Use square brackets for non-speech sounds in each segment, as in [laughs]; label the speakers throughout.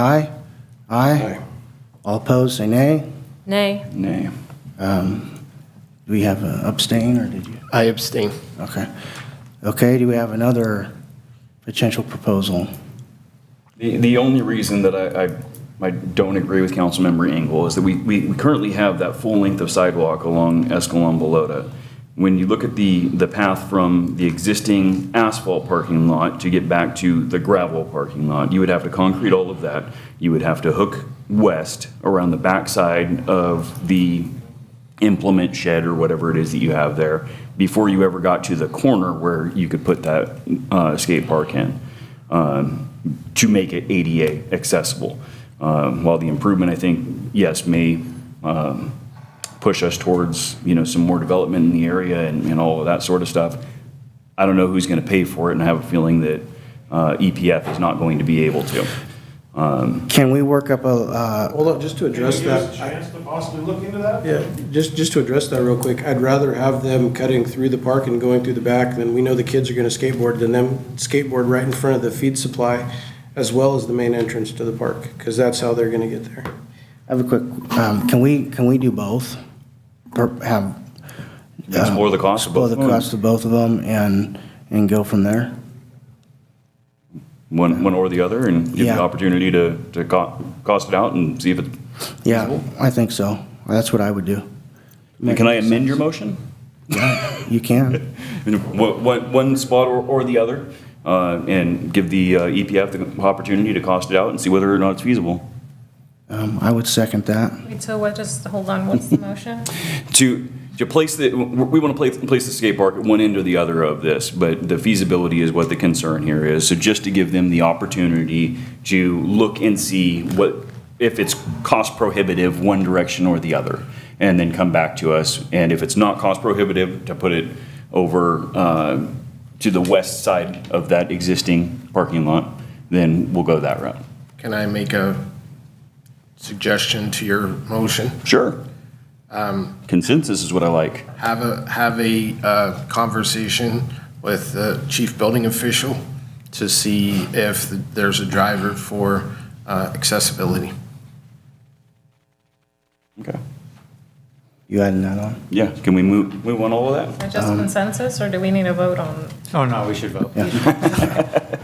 Speaker 1: Aye? Aye? All opposed, say nay. Um,
Speaker 2: Nay.
Speaker 3: Nay.
Speaker 1: Do we have a abstain, or did you?
Speaker 4: I abstain.
Speaker 1: Okay. Okay, do we have another potential proposal?
Speaker 3: The, the only reason that I, I, I don't agree with Councilmember Engel is that we, we we currently have that full length of sidewalk along Escalon Balota. When you look at the, the path from the existing asphalt parking lot to get back to the gravel parking lot, you would have to concrete all of that. You would have to hook west around the backside of the implement shed or whatever it is that you have there before you ever got to the corner where you could put that uh, skate park in um, to make it ADA accessible. Um, While the improvement, I think, yes, may um, push us towards, you know, some more development in the area and and all of that sort of stuff, I don't know who's going to pay for it, and I have a feeling that uh, EPF is not going to be able to.
Speaker 1: Can we work up a, uh,
Speaker 5: Hold on, just to address
Speaker 6: Give us a
Speaker 5: that, I-
Speaker 6: chance to possibly look into that?
Speaker 5: yeah, just, just to address that real quick, I'd rather have them cutting through the park and going through the back than we know the kids are gonna skateboard than them skateboard right in front of the feed supply as well as the main entrance to the park, because that's how they're gonna get there.
Speaker 1: I have a quick, um, can we, can we do both? Per- Have,
Speaker 3: Explore the cost of
Speaker 1: explore
Speaker 3: both.
Speaker 1: the cost of both of them and, and go from there?
Speaker 3: One, one or the other, and give
Speaker 1: Yeah.
Speaker 3: the opportunity to, to co- cost it out and see if it
Speaker 1: Yeah, I think so. That's what I would do.
Speaker 3: Can I amend your motion?
Speaker 1: You can.
Speaker 3: One, one- one spot or, or the other, uh, and give the uh, EPF the opportunity to cost it out and see whether or not it's feasible.
Speaker 1: Um, I would second that.
Speaker 2: Wait, so what, just hold on, what's the motion?
Speaker 3: To, to place the, we want to place, place the skate park at one end or the other of this, but the feasibility is what the concern here is. So just to give them the opportunity to look and see what, if it's cost prohibitive one direction or the other, and then come back to us. And if it's not cost prohibitive, to put it over uh, to the west side of that existing parking lot, then we'll go that route.
Speaker 4: Can I make a suggestion to your motion?
Speaker 3: Sure. Consensus is what I like.
Speaker 4: Have a, have a uh, conversation with the chief building official to see if there's a driver for uh, accessibility.
Speaker 3: Okay.
Speaker 1: You adding that on?
Speaker 3: Yeah, can we move, move on all of that?
Speaker 2: Is it Just consensus, or do we need a vote on?
Speaker 7: Oh, no, we should vote.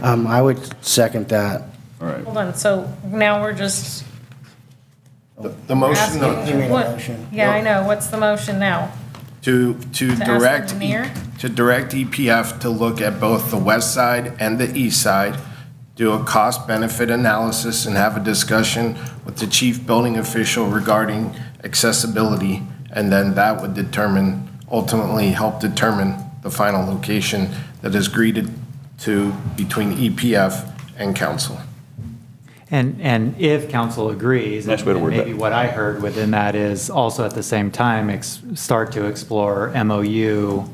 Speaker 1: Um, I would second that.
Speaker 3: All right.
Speaker 2: Hold on, so now we're just
Speaker 4: The the motion
Speaker 2: asking.
Speaker 4: to,
Speaker 2: what-
Speaker 1: motion.
Speaker 2: Yeah, I know, what's the motion now?
Speaker 4: to
Speaker 2: the
Speaker 4: direct, E-
Speaker 2: mayor?
Speaker 4: to direct EPF to look at both the west side and the east side, do a cost-benefit analysis, and have a discussion with the chief building official regarding accessibility, and then that would determine, ultimately help determine the final location that is greeted to between EPF and council.
Speaker 7: And, and if council agrees,
Speaker 3: Nice way to
Speaker 7: and
Speaker 3: word that.
Speaker 7: maybe what I heard within that is also at the same time, ex- start to explore MOU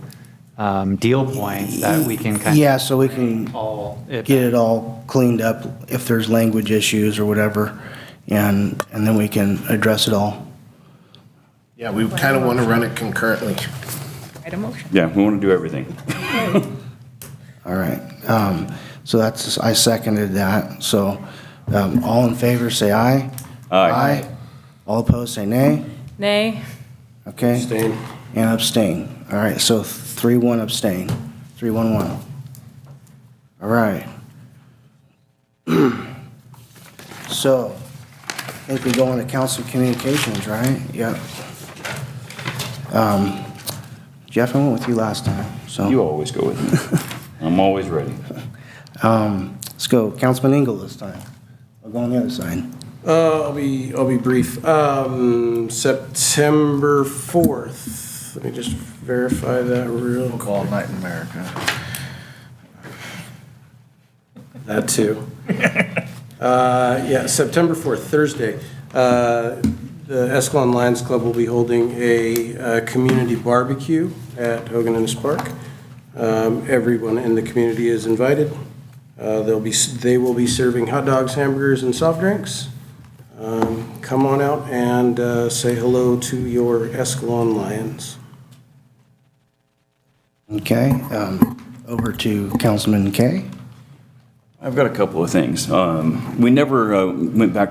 Speaker 7: um, deal points that we can kind of.
Speaker 1: Yeah, so we can
Speaker 7: All. if-
Speaker 1: get it all cleaned up if there's language issues or whatever, and, and then we can address it all.
Speaker 4: Yeah, we kind of want to run it concurrently.
Speaker 2: Write a motion.
Speaker 3: Yeah, we want to do everything.
Speaker 1: All right. Um, so that's, I seconded that. So, um, all in favor, say aye.
Speaker 3: Aye.
Speaker 1: All opposed, say nay.
Speaker 2: Nay.
Speaker 1: Okay?
Speaker 5: Abstain.
Speaker 1: And abstain. All right, so three, one abstain. Three, one, one. All right. [clears throat] So, I think we go into council communications, right? Yep. Um, Jeff, I went with you last time, so.
Speaker 3: You always go with [laughs] me. I'm always ready.
Speaker 1: Um, let's go, Councilman Ingle this time. I'll go on the other side.
Speaker 5: Uh, I'll be, I'll be brief. Um, September fourth, let me just verify that real quick.
Speaker 4: All night in America.
Speaker 5: That too. Uh, Yeah, September 4th, Thursday, uh, the Escalon Lions Club will be holding a uh, community barbecue at Hogan Innes Park. Um, Everyone in the community is invited. Uh, They'll be, they will be serving hot dogs, hamburgers, and soft drinks. Um, Come on out and uh, say hello to your Escalon Lions.
Speaker 1: Okay, um, over to Councilman Kay.
Speaker 3: I've got a couple of things. Um, We never uh, went back to